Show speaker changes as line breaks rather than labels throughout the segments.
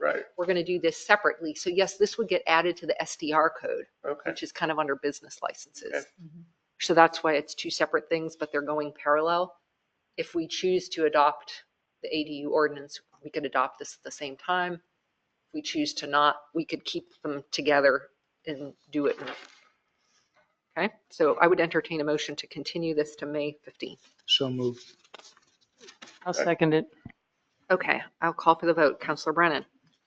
Right,
We're going to do this separately. So yes, this would get added to the SDR code,
okay.
which is kind of under business licenses.
Okay.
Mm-hmm. So that's why it's two separate things, but they're going parallel. If we choose to adopt the ADU ordinance, we could adopt this at the same time. If we choose to not, we could keep them together and do it. in- Okay, so I would entertain a motion to continue this to May 15th.
So moved.
I'll second it.
Okay, I'll call for the vote. Counselor Brennan,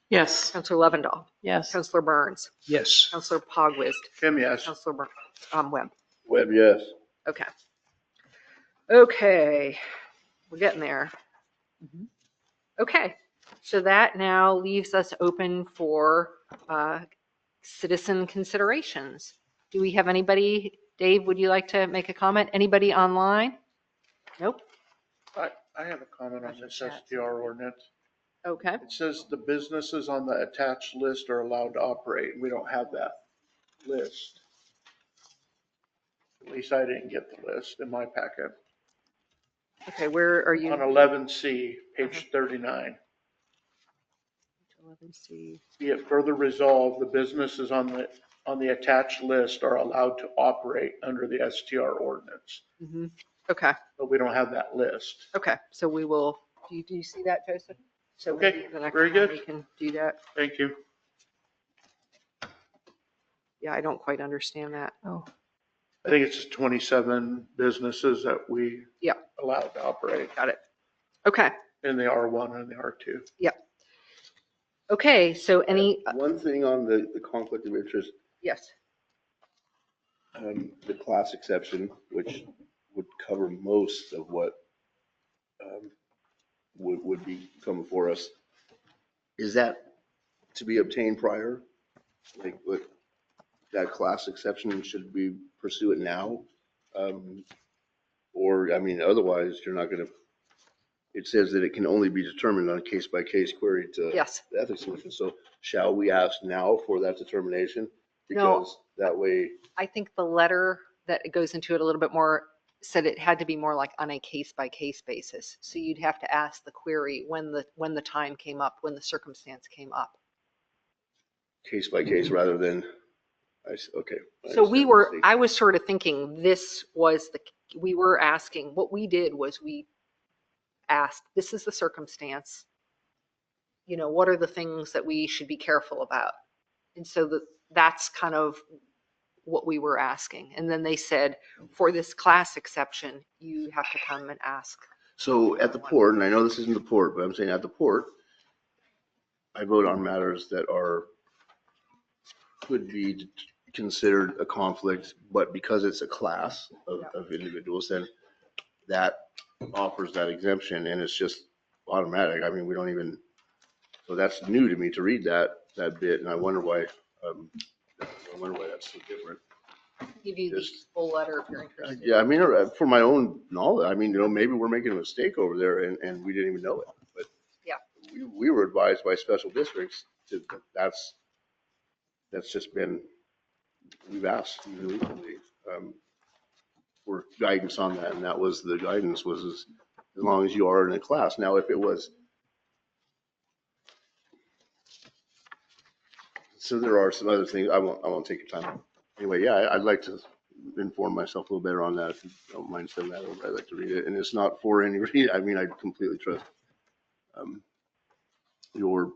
Yes,
Counselor Lovendall,
yes.
Counselor Burns,
Yes.
Counselor Pogwizd,
Kim, yes.
Counselor Bur- um, Webb.
Webb, yes.
Okay. Okay, we're getting there.
Mhm.
Okay, so that now leaves us open for uh, citizen considerations. Do we have anybody, Dave, would you like to make a comment? Anybody online? Nope,
I, I have a comment on this SDR ordinance.
okay.
It says the businesses on the attached list are allowed to operate. We don't have that list. At least I didn't get the list in my packet.
Okay, where are you?
On eleven C, page thirty-nine.
11C.
Be it further resolved, the businesses on the, on the attached list are allowed to operate under the STR ordinance,
Mhm. Okay,
but we don't have that list.
okay, so we will, do you, do you see that, Joseph? So
Okay,
maybe the next
very
time
good.
We can do that.
Thank you.
Yeah, I don't quite understand that.
Oh,
I think it's 27 businesses that we
Yeah.
allowed to operate
Got it. Okay,
in the R1 and the R2.
okay, so any,
One thing on the, the conflict of interest,
yes.
um, the class exception, which would cover most of what, um, would, would be coming for us. Is that to be obtained prior? Like, what, that class exception, should we pursue it now? Um, or, I mean, otherwise, you're not gonna, it says that it can only be determined on a case by case query to
Yes,
the ethics commission. So shall we ask now for that determination?
No.
Because that way,
I think the letter that goes into it a little bit more said it had to be more like on a case by case basis. So you'd have to ask the query when the, when the time came up, when the circumstance came up.
case by case rather than, I, s- okay. I
So we
understand the
were,
mistake.
I was sort of thinking this was the, we were asking, what we did was we asked, this is the circumstance. You know, what are the things that we should be careful about? And so that, that's kind of what we were asking. And then they said, for this class exception, you have to come and ask.
So at the port, and I know this isn't the port, but I'm saying at the port, I vote on matters that are, could be d- considered a conflict, but because it's a class of, of individuals, then that offers that exemption and it's just automatic. I mean, we don't even, so that's new to me to read that, that bit and I wonder why, um, I wonder why that's so different.
Give you the
Just-
full letter if you're interested.
Yeah, I mean, uh, for my own knowledge, I mean, you know, maybe we're making a mistake over there and, and we didn't even know it, but.
Yeah.
We, we were advised by special districts to, that's, that's just been, we've asked legally, um, for guidance on that, and that was, the guidance was as, as long as you are in a class. Now, if it was. So there are some other things, I won't, I won't take your time. Anyway, yeah, I- I'd like to inform myself a little better on that. If you don't mind sending that over, I'd like to read it. And it's not for any reason. I mean, I completely trust um, your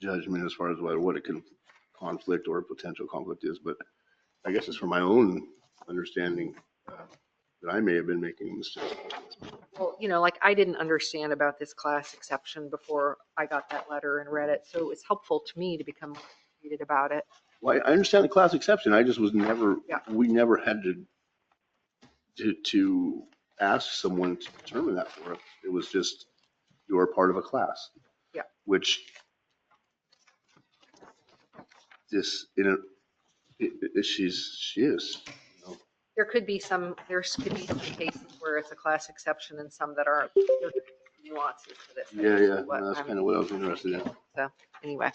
judgment as far as what, what a con- conflict or a potential conflict is, but I guess it's for my own understanding uh, that I may have been making mistakes.
Well, you know, like I didn't understand about this class exception before I got that letter and read it. So it was helpful to me to become more educated about it.
Well, I I understand the class exception. I just was never,
Yeah.
we never had to, to, to ask someone to determine that for us. It was just, you're part of a class.
Yeah.
Which this, in a, it, it- she's, she is.
There could be some, there could be some cases where it's a class exception and some that aren't There's nuances to this.
Yeah, yeah.
What
That's
I'm-
kind of what I was interested in.
Anyway.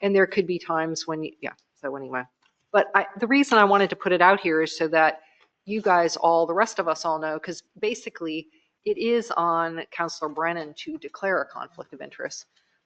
And there could be times when, you yeah, so anyway. But I, the reason I wanted to put it out here is so that you guys all, the rest of us all know, because basically it is on Counselor Brennan to declare a conflict of interest.